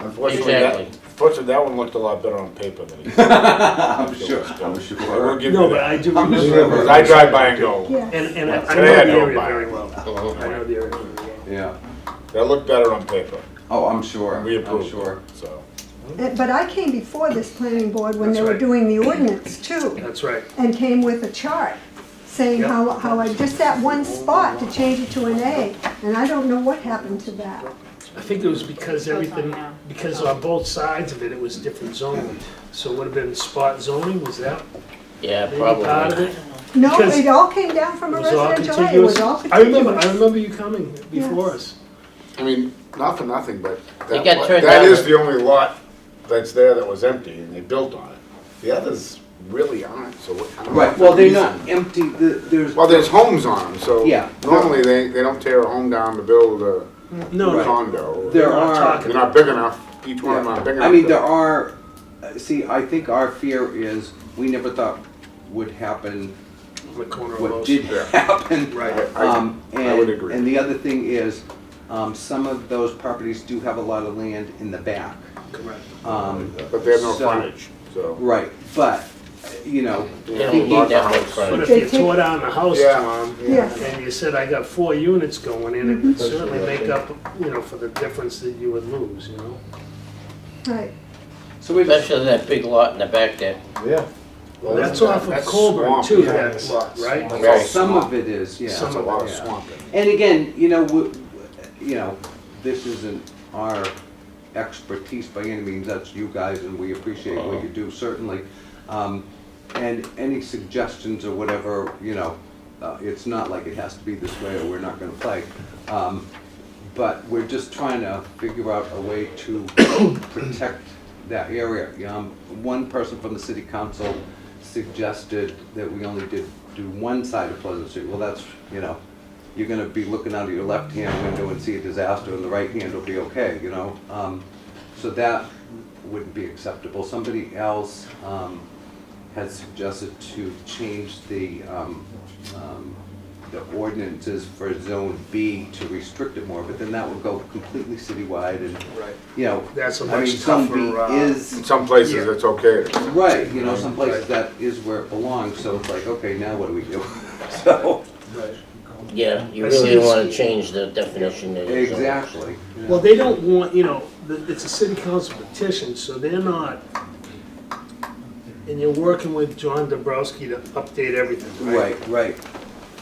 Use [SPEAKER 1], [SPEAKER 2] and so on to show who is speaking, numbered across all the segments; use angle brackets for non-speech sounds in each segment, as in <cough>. [SPEAKER 1] Unfortunately, that,
[SPEAKER 2] Exactly.
[SPEAKER 1] unfortunately, that one looked a lot better on paper than it. I
[SPEAKER 3] <laughs> I'm sure, <laughs> I'm
[SPEAKER 1] will
[SPEAKER 3] sure.
[SPEAKER 1] give
[SPEAKER 4] No,
[SPEAKER 1] you
[SPEAKER 4] but I
[SPEAKER 1] that.
[SPEAKER 4] do
[SPEAKER 3] I'm just
[SPEAKER 4] remember,
[SPEAKER 1] Because I drive by and go,
[SPEAKER 5] Yeah.
[SPEAKER 4] and, and I I know
[SPEAKER 1] Today
[SPEAKER 4] the
[SPEAKER 1] I drove
[SPEAKER 4] area
[SPEAKER 1] by.
[SPEAKER 4] very well. I know the area very well.
[SPEAKER 3] Yeah,
[SPEAKER 1] that looked better on paper.
[SPEAKER 3] oh, I'm sure,
[SPEAKER 1] We
[SPEAKER 3] I'm
[SPEAKER 1] approved,
[SPEAKER 3] sure.
[SPEAKER 1] it, so.
[SPEAKER 5] Uh, But I came before this planning board when
[SPEAKER 4] That's
[SPEAKER 5] they were
[SPEAKER 4] right.
[SPEAKER 5] doing the ordinance too,
[SPEAKER 4] That's right.
[SPEAKER 5] and came with a chart saying
[SPEAKER 4] Yep.
[SPEAKER 5] how, how I, just that one spot to change it to an A, and I don't know what happened to that.
[SPEAKER 4] I think it was because everything, because on both sides of it, it was different zoning. So it would have been spot zoning, was that
[SPEAKER 2] Yeah,
[SPEAKER 4] maybe part of
[SPEAKER 2] probably.
[SPEAKER 4] it?
[SPEAKER 5] No,
[SPEAKER 4] Because
[SPEAKER 5] it all came down from a
[SPEAKER 4] It was all
[SPEAKER 5] residential area, it was
[SPEAKER 4] contiguous.
[SPEAKER 5] all
[SPEAKER 4] I remember, I
[SPEAKER 5] contiguous.
[SPEAKER 4] remember you coming before us.
[SPEAKER 1] I mean, not for nothing, but that,
[SPEAKER 2] got
[SPEAKER 1] lot-
[SPEAKER 2] turned
[SPEAKER 1] that
[SPEAKER 2] down.
[SPEAKER 1] is the only lot that's there that was empty and they built on it. The others really aren't, so what- I don't know
[SPEAKER 3] Right,
[SPEAKER 1] what
[SPEAKER 3] well,
[SPEAKER 1] the
[SPEAKER 3] they're
[SPEAKER 1] reason-
[SPEAKER 3] not empty, the- there's.
[SPEAKER 1] Well, there's homes on them, so
[SPEAKER 3] Yeah.
[SPEAKER 1] normally they, they don't tear a home down to build a
[SPEAKER 4] No,
[SPEAKER 3] Right.
[SPEAKER 4] no,
[SPEAKER 1] condo.
[SPEAKER 3] There
[SPEAKER 4] we're not
[SPEAKER 3] are-
[SPEAKER 4] talking.
[SPEAKER 1] They're not big enough, each one of them aren't big enough.
[SPEAKER 3] I mean,
[SPEAKER 1] to-
[SPEAKER 3] there are, see, I think our fear is, we never thought would happen
[SPEAKER 4] on the corner of
[SPEAKER 3] what
[SPEAKER 4] most.
[SPEAKER 3] did
[SPEAKER 1] yeah.
[SPEAKER 3] happen.
[SPEAKER 4] Right.
[SPEAKER 1] I-
[SPEAKER 3] Um,
[SPEAKER 1] I would
[SPEAKER 3] and-
[SPEAKER 1] agree.
[SPEAKER 3] And the other thing is, um, some of those properties do have a lot of land in the back.
[SPEAKER 4] Correct.
[SPEAKER 3] Um,
[SPEAKER 1] But they have no
[SPEAKER 3] so-
[SPEAKER 1] frontage, so.
[SPEAKER 3] Right, but, you know,
[SPEAKER 2] They
[SPEAKER 1] Yeah,
[SPEAKER 2] don't
[SPEAKER 1] lots
[SPEAKER 2] need
[SPEAKER 1] of
[SPEAKER 2] that much
[SPEAKER 1] houses.
[SPEAKER 4] But
[SPEAKER 2] frontage.
[SPEAKER 4] if you tore down the house,
[SPEAKER 1] Yeah,
[SPEAKER 4] Tom,
[SPEAKER 1] Mom,
[SPEAKER 5] Yeah.
[SPEAKER 4] and you said, I got four units going in, it would certainly make up, you know, for the difference that you would lose, you know?
[SPEAKER 5] Right,
[SPEAKER 3] so we just,
[SPEAKER 2] Especially that big lot in the back there.
[SPEAKER 6] Yeah.
[SPEAKER 4] Well, that's off of
[SPEAKER 1] that's
[SPEAKER 4] Colburn
[SPEAKER 1] swamp,
[SPEAKER 4] too,
[SPEAKER 1] yeah.
[SPEAKER 4] that lot, right?
[SPEAKER 2] Right.
[SPEAKER 3] some of it is, yeah.
[SPEAKER 4] Some
[SPEAKER 1] That's a
[SPEAKER 4] of
[SPEAKER 1] lot
[SPEAKER 3] it,
[SPEAKER 1] of
[SPEAKER 3] yeah.
[SPEAKER 1] swamp. in it.
[SPEAKER 3] And again, you know, w- you know, this isn't our expertise by any means, that's you guys, and we appreciate what you do, certainly. Um, And any suggestions or whatever, you know, uh, it's not like it has to be this way or we're not gonna play. Um, But we're just trying to figure out a way to <coughs> protect that area. Um, One person from the city council suggested that we only did, do one side of Pleasant Street. Well, that's, you know, you're gonna be looking out of your left-hand window and see a disaster, and the right hand will be okay, you know? Um, So that wouldn't be acceptable. Somebody else um, had suggested to change the, um, um, the ordinances for Zone B to restrict it more, but then that would go completely citywide and,
[SPEAKER 4] Right.
[SPEAKER 3] you know.
[SPEAKER 4] That's a
[SPEAKER 3] I
[SPEAKER 4] much
[SPEAKER 3] mean, Zone B
[SPEAKER 4] tougher, uh,
[SPEAKER 3] Is
[SPEAKER 1] In some places,
[SPEAKER 4] Yeah.
[SPEAKER 1] it's okay. to-
[SPEAKER 3] Right, you know, some places
[SPEAKER 4] Right.
[SPEAKER 3] that is where it belongs, so it's like, okay, now what do we do? <laughs> So,
[SPEAKER 4] Right.
[SPEAKER 2] Yeah, you
[SPEAKER 4] I see
[SPEAKER 2] really
[SPEAKER 4] it's-
[SPEAKER 2] wanna change the definition of the zone.
[SPEAKER 3] exactly. you know.
[SPEAKER 4] Well, they don't want, you know, the- it's a city council petition, so they're not, and you're working with John Dabrowski to update everything, right?
[SPEAKER 3] Right, right.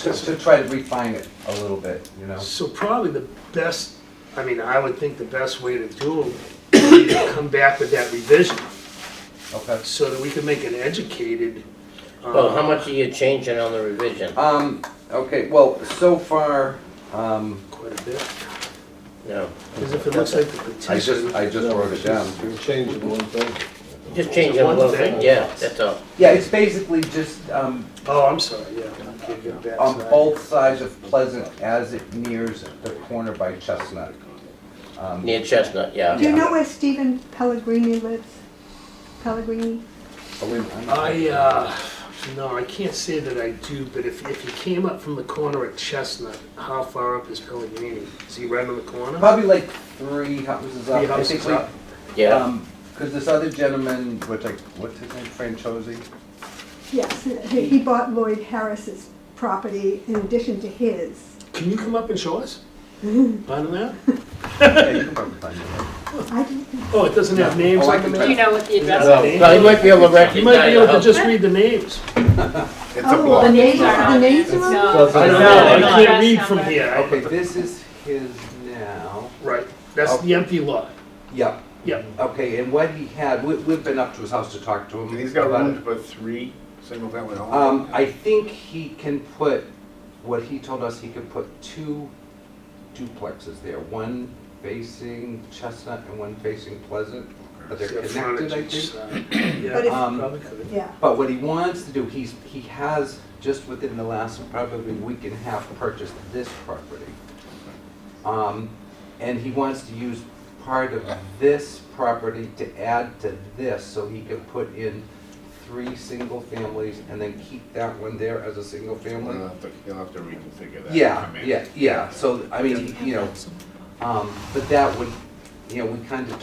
[SPEAKER 3] To, to try to refine it a little bit, you know?
[SPEAKER 4] So probably the best, I mean, I would think the best way to do it would be to come back with that revision
[SPEAKER 3] Okay.
[SPEAKER 4] so that we can make an educated. uh,
[SPEAKER 2] Well, how much are you changing on the revision?
[SPEAKER 3] Um, okay, well, so far, um,
[SPEAKER 4] Quite a bit,
[SPEAKER 2] No,
[SPEAKER 4] because if it looks like the
[SPEAKER 3] I just,
[SPEAKER 4] petition,
[SPEAKER 3] I just wrote it down.
[SPEAKER 6] Changing one thing.
[SPEAKER 2] just changing
[SPEAKER 4] One
[SPEAKER 2] one
[SPEAKER 4] thing.
[SPEAKER 2] thing, yeah, that's all.
[SPEAKER 3] Yeah, it's basically just, um,
[SPEAKER 4] oh, I'm sorry, yeah, I can't get back
[SPEAKER 3] on
[SPEAKER 4] to that.
[SPEAKER 3] both sides of Pleasant as it nears the corner by Chestnut. Um,
[SPEAKER 2] Near Chestnut, yeah.
[SPEAKER 5] do you
[SPEAKER 3] Yeah.
[SPEAKER 5] know where Stephen Pellegrini lives? Pellegrini?
[SPEAKER 3] oh, wait a minute, I'm not-
[SPEAKER 4] I, uh, no, I can't say that I do, but if, if you came up from the corner at Chestnut, how far up is Pellegrini? Is he right on the corner?
[SPEAKER 3] Probably like three houses up.
[SPEAKER 4] Three
[SPEAKER 3] I
[SPEAKER 4] houses
[SPEAKER 3] think we-
[SPEAKER 4] up.
[SPEAKER 3] um,
[SPEAKER 2] Yeah,
[SPEAKER 3] Because this other gentleman, which I, what's his name,
[SPEAKER 4] <laughs>
[SPEAKER 3] Franchosi?
[SPEAKER 5] Yes, he he bought Lloyd Harris's property in addition to his.
[SPEAKER 4] Can you come up and show us? Bottom that?
[SPEAKER 3] Yeah, you can probably find him.
[SPEAKER 5] I didn't
[SPEAKER 4] Oh, it doesn't have names
[SPEAKER 3] Oh, I
[SPEAKER 4] on the
[SPEAKER 3] can
[SPEAKER 4] map?
[SPEAKER 3] tell.
[SPEAKER 7] Do you know what the address
[SPEAKER 4] Well,
[SPEAKER 7] is?
[SPEAKER 2] well, you might be able to
[SPEAKER 4] You might be
[SPEAKER 2] recognize the
[SPEAKER 4] able to
[SPEAKER 2] house.
[SPEAKER 4] just read the names.
[SPEAKER 1] It's a
[SPEAKER 5] Oh, well, the
[SPEAKER 1] block.
[SPEAKER 5] names,
[SPEAKER 7] are
[SPEAKER 5] the
[SPEAKER 7] not
[SPEAKER 5] names
[SPEAKER 7] there.
[SPEAKER 5] are
[SPEAKER 7] No.
[SPEAKER 5] up?
[SPEAKER 4] I
[SPEAKER 2] No,
[SPEAKER 4] know, I
[SPEAKER 2] no,
[SPEAKER 4] can't
[SPEAKER 7] no.
[SPEAKER 4] read from here. I-
[SPEAKER 3] Okay, this is his now.
[SPEAKER 4] Right, that's the empty lot.
[SPEAKER 3] Yep.
[SPEAKER 4] Yep.
[SPEAKER 3] Okay, and what he had, we, we've been up to his house to talk to him.
[SPEAKER 1] And he's got
[SPEAKER 3] about
[SPEAKER 1] room to
[SPEAKER 3] it.
[SPEAKER 1] put three single-family homes.
[SPEAKER 3] Um, I think he can put, what he told us, he could put two duplexes there, one facing Chestnut and one facing Pleasant, but they're
[SPEAKER 4] Yeah,
[SPEAKER 3] connected, I
[SPEAKER 4] frontage
[SPEAKER 3] think.
[SPEAKER 4] side.
[SPEAKER 5] But if-
[SPEAKER 4] Yeah,
[SPEAKER 3] Um,
[SPEAKER 4] probably could.
[SPEAKER 5] Yeah,
[SPEAKER 3] But what he wants to do, he's, he has, just within the last probably week and a half, purchased this property. Um, and he wants to use part of this property to add to this, so he can put in three single families and then keep that one there as a
[SPEAKER 1] You'll
[SPEAKER 3] single family.
[SPEAKER 1] have to- you'll have to reconfigure that.
[SPEAKER 3] Yeah,
[SPEAKER 1] Uh, I mean-
[SPEAKER 3] yeah, yeah, so, I mean, you know, um, but that would, you know, we kind of